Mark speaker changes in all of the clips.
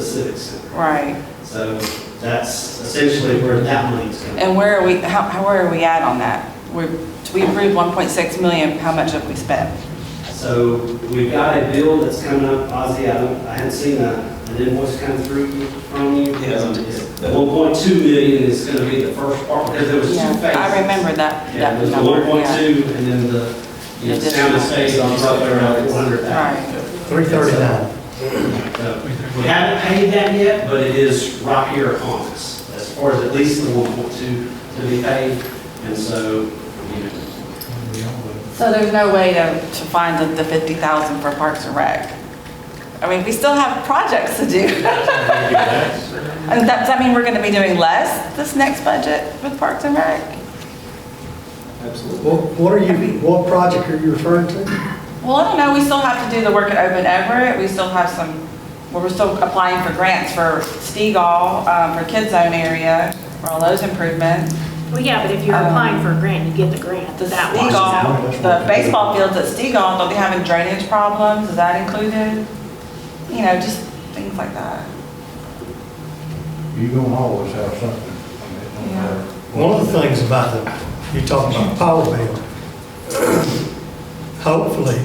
Speaker 1: civic center.
Speaker 2: Right.
Speaker 1: So that's essentially where that money's coming.
Speaker 2: And where are we, how, how, where are we at on that? We, we approved 1.6 million, how much have we spent?
Speaker 1: So we've got a bill that's coming up, Ozzy, I don't, I hadn't seen a- an invoice come through from you.
Speaker 3: Yes.
Speaker 1: One point two million is gonna be the first part, because there was two
Speaker 2: Yeah,
Speaker 1: phases.
Speaker 2: I remember that,
Speaker 1: Yeah,
Speaker 2: that
Speaker 1: there's the
Speaker 2: number,
Speaker 1: one point
Speaker 2: yeah.
Speaker 1: two, and then the, you know,
Speaker 2: The
Speaker 1: sound and
Speaker 2: additional.
Speaker 1: stage on roughly around one hundred thousand.
Speaker 2: Right,
Speaker 4: 339.
Speaker 1: We haven't paid that yet, but it is right here on us, as far as at least the one point two to be paid, and so, you know,
Speaker 2: so there's no way to, to find the, the 50,000 for Parks and Rec? I mean, we still have projects to do. And that, does that mean we're gonna be doing less this next budget with Parks and Rec?
Speaker 3: Absolutely.
Speaker 4: What what are you, what project are you referring to?
Speaker 2: Well, I don't know, we still have to do the work at Open Everett, we still have some, well, we're still applying for grants for Stegall, um, for Kids Zone area, for all those improvements.
Speaker 5: Well, yeah, but if you're
Speaker 2: Um,
Speaker 5: applying for a grant, you get the grant,
Speaker 2: The
Speaker 5: that washes out.
Speaker 2: Stegall, the baseball fields at Stegall, don't they having drainage problems, is that included? You know, just things like that.
Speaker 6: You gonna always have something. I mean, it don't matter.
Speaker 4: One of the things about the, you talking about power bill, hopefully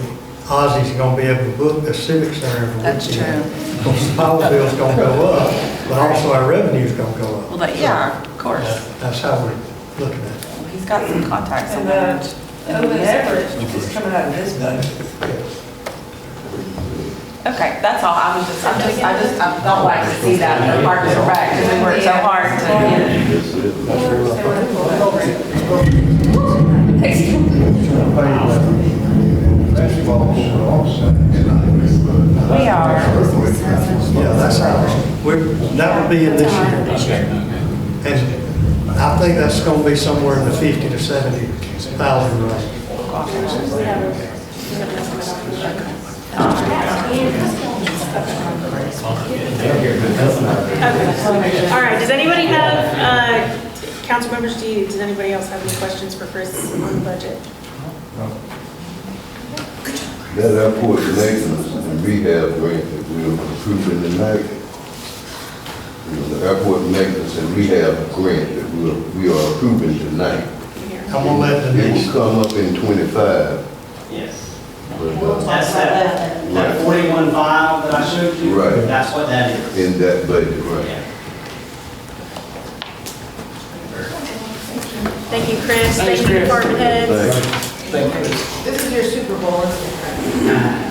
Speaker 4: Ozzy's gonna be able to book the civic center every
Speaker 2: That's
Speaker 4: weekend. Because the power bill's gonna go up, but also our revenue's gonna go up.
Speaker 2: Well, that, yeah, of course,
Speaker 4: That- That's how we're looking at it.
Speaker 2: he's got some contacts in
Speaker 7: And
Speaker 2: there.
Speaker 7: the open average is coming out of this budget.
Speaker 2: Okay, that's all, I was just, I just, I just, I don't like to see that in the Parks and Rec, because we worked so hard to.
Speaker 6: That's what I'm saying.
Speaker 2: We are.
Speaker 4: Yeah, that's how, we're, that would be in this year. And I think that's gonna be somewhere in the 50 to 70,000 range.
Speaker 5: Okay. All right, does anybody have, uh, council members, do you, does anybody else have any questions for Chris on the budget?
Speaker 8: That airport connections and rehab grant that we're approving tonight. You know, The airport maintenance and rehab grant that we are, we are approving tonight.
Speaker 5: Here.
Speaker 4: I'm gonna let
Speaker 8: It
Speaker 4: Denise,
Speaker 8: will come up in twenty-five,
Speaker 1: yes.
Speaker 8: but, uh,
Speaker 1: That's that, that forty-one file that I showed you.
Speaker 8: Right.
Speaker 1: That's what that is.
Speaker 8: in that budget, right?
Speaker 1: Yeah.
Speaker 5: Thank you, Chris, thank you, department heads.
Speaker 8: Thanks.
Speaker 3: Thank you.
Speaker 7: This is your Super Bowl, isn't it?